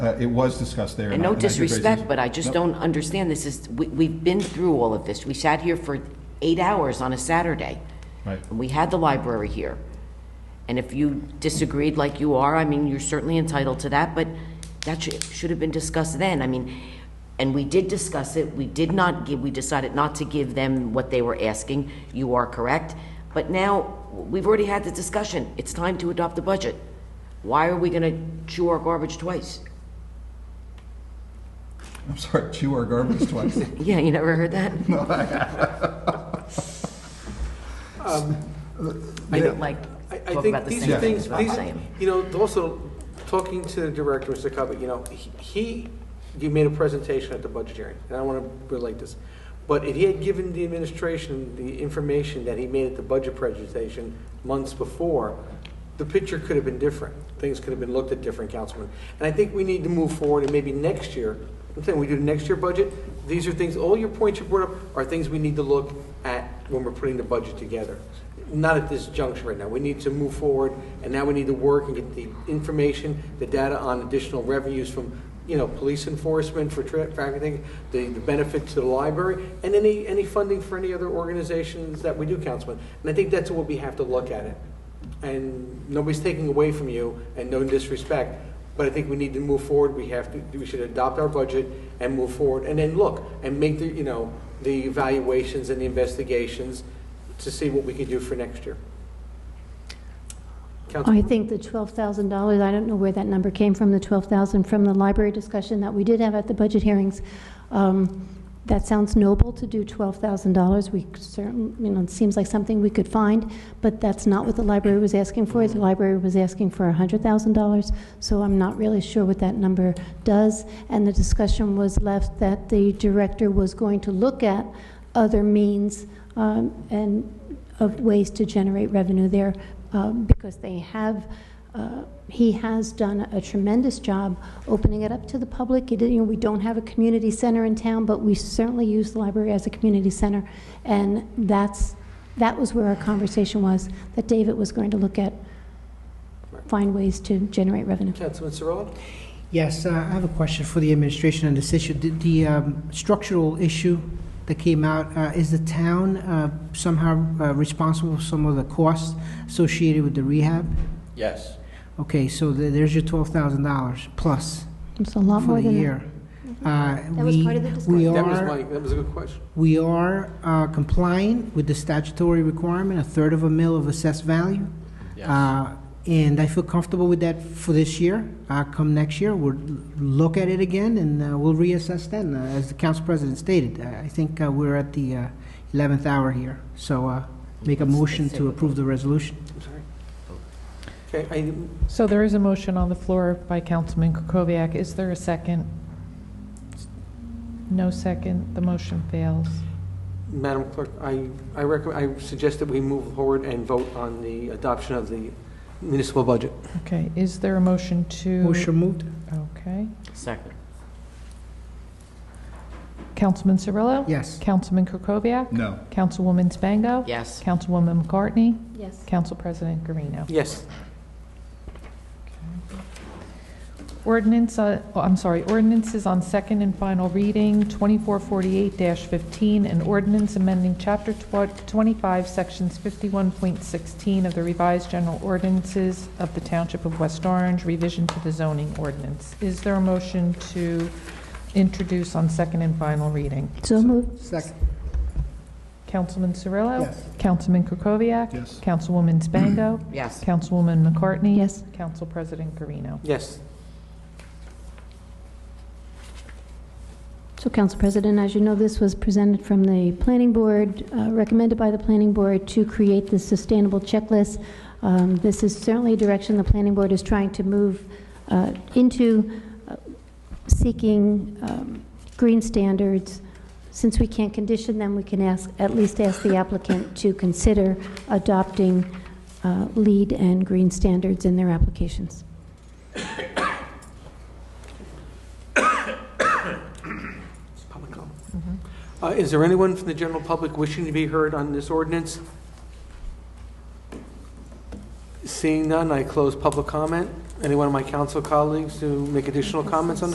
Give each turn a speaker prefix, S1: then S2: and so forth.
S1: Uh, It was discussed there.
S2: And
S1: I-
S2: no
S1: I did raise these-
S2: disrespect, but I just
S1: Nope.
S2: don't understand this is, we, we've been through all of this. We sat here for eight hours on a Saturday.
S1: Right.
S2: And we had the library here. And if you disagreed like you are, I mean, you're certainly entitled to that, but that should, should have been discussed then. I mean, and we did discuss it. We did not give, we decided not to give them what they were asking. You are correct. But now, we've already had the discussion. It's time to adopt the budget. Why are we gonna chew our garbage twice?
S1: I'm sorry, chew our garbage twice.
S2: Yeah, you never heard that? Um, I don't like
S3: Um, I, I
S2: talk
S3: think
S2: about the
S3: these
S2: same
S3: are
S2: things,
S3: things,
S2: but I'm
S3: these,
S2: saying.
S3: you know, also, talking to the director, Mr. Covet, you know, he- he, you made a presentation at the budget hearing, and I want to relate this. But if he had given the administration the information that he made at the budget presentation months before, the picture could have been different. Things could have been looked at different, Councilman. And I think we need to move forward, and maybe next year, I'm saying, we do the next year budget, these are things, all your points you brought up are things we need to look at when we're putting the budget together not at this juncture right now. We need to move forward, and now we need to work and get the information, the data on additional revenues from, you know, police enforcement for tra- trafficking, the, the benefit to the library, and any, any funding for any other organizations that we do, Councilman. And I think that's what we have to look at it. And nobody's taking away from you, and no disrespect, but I think we need to move forward. We have to, we should adopt our budget and move forward, and then look, and make the, you know, the evaluations and the investigations to see what we can do for next year. Council,
S4: I think the $12,000, I don't know where that number came from, the 12,000 from the library discussion that we did have at the budget hearings. Um, That sounds noble to do $12,000. We certain, you know, it seems like something we could find, but that's not what the library was asking for. The library was asking for $100,000, so I'm not really sure what that number does. And the discussion was left that the director was going to look at other means um, and of ways to generate revenue there uh, because they have, uh, he has done a tremendous job opening it up to the public. He did- You know, we don't have a community center in town, but we certainly use the library as a community center. And that's, that was where our conversation was, that David was going to look at, find ways to generate revenue.
S3: Councilman Cirillo?
S5: Yes, uh, I have a question for the administration on this issue. Did The um, structural issue that came out, uh, is the town uh, somehow uh, responsible for some of the costs associated with the rehab?
S6: Yes.
S5: Okay, so the- there's your $12,000 plus
S4: It's a lot
S5: for
S4: more
S5: the
S4: than
S5: year.
S4: that. Mm-hmm.
S5: That
S4: That was part of the
S5: We
S4: discussion.
S3: That was
S5: are,
S3: my, that was a good question.
S5: we are uh, complying with the statutory requirement, a third of a mil of assessed value.
S6: Yes.
S5: Uh, And I feel comfortable with that for this year. Uh, Come next year, we'll look at it again, and uh, we'll reassess then. Uh, As the council president stated, I I think uh, we're at the uh, 11th hour here, so uh, make a motion to approve the resolution.
S3: I'm sorry. Okay, I,
S7: So there is a motion on the floor by Councilman Kukoviac. Is there a second? No second, the motion fails.
S3: Madam Clerk, I, I recommend, I suggest that we move forward and vote on the adoption of the municipal budget.
S7: Okay, is there a motion to?
S5: Motion moved?
S7: Okay.
S2: Second.
S7: Councilman Cirillo?
S5: Yes.
S7: Councilman Kukoviac?
S1: No.
S7: Councilwoman Spango?
S2: Yes.
S7: Councilwoman McCartney?
S4: Yes.
S7: Council President Garino.
S3: Yes,
S7: Ordinance, uh, oh, I'm sorry, ordinances on second and final reading, 2448-15, an ordinance amending Chapter tw- 25, Sections 51.16 of the revised general ordinances of the Township of West Orange, revision to the zoning ordinance. Is there a motion to introduce on second and final reading?
S4: So moved.
S5: Second.
S7: Councilman Cirillo?
S5: Yes.
S7: Councilman Kukoviac?
S1: Yes.
S7: Councilwoman Spango?
S2: Yes.
S7: Councilwoman McCartney?
S4: Yes.
S7: Council President Garino.
S3: yes.
S4: So, Council President, as you know, this was presented from the Planning Board, uh, recommended by the Planning Board to create the sustainable checklist. Um, This is certainly a direction the Planning Board is trying to move uh, into uh, seeking um, green standards. Since we can't condition them, we can ask, at least ask the applicant to consider adopting uh, LEED and green standards in their applications.
S3: It's public comment.
S5: Mm-hmm.
S3: Uh, Is there anyone from the general public wishing to be heard on this ordinance? Seeing none, I close public comment. Any one of my council colleagues to make additional comments on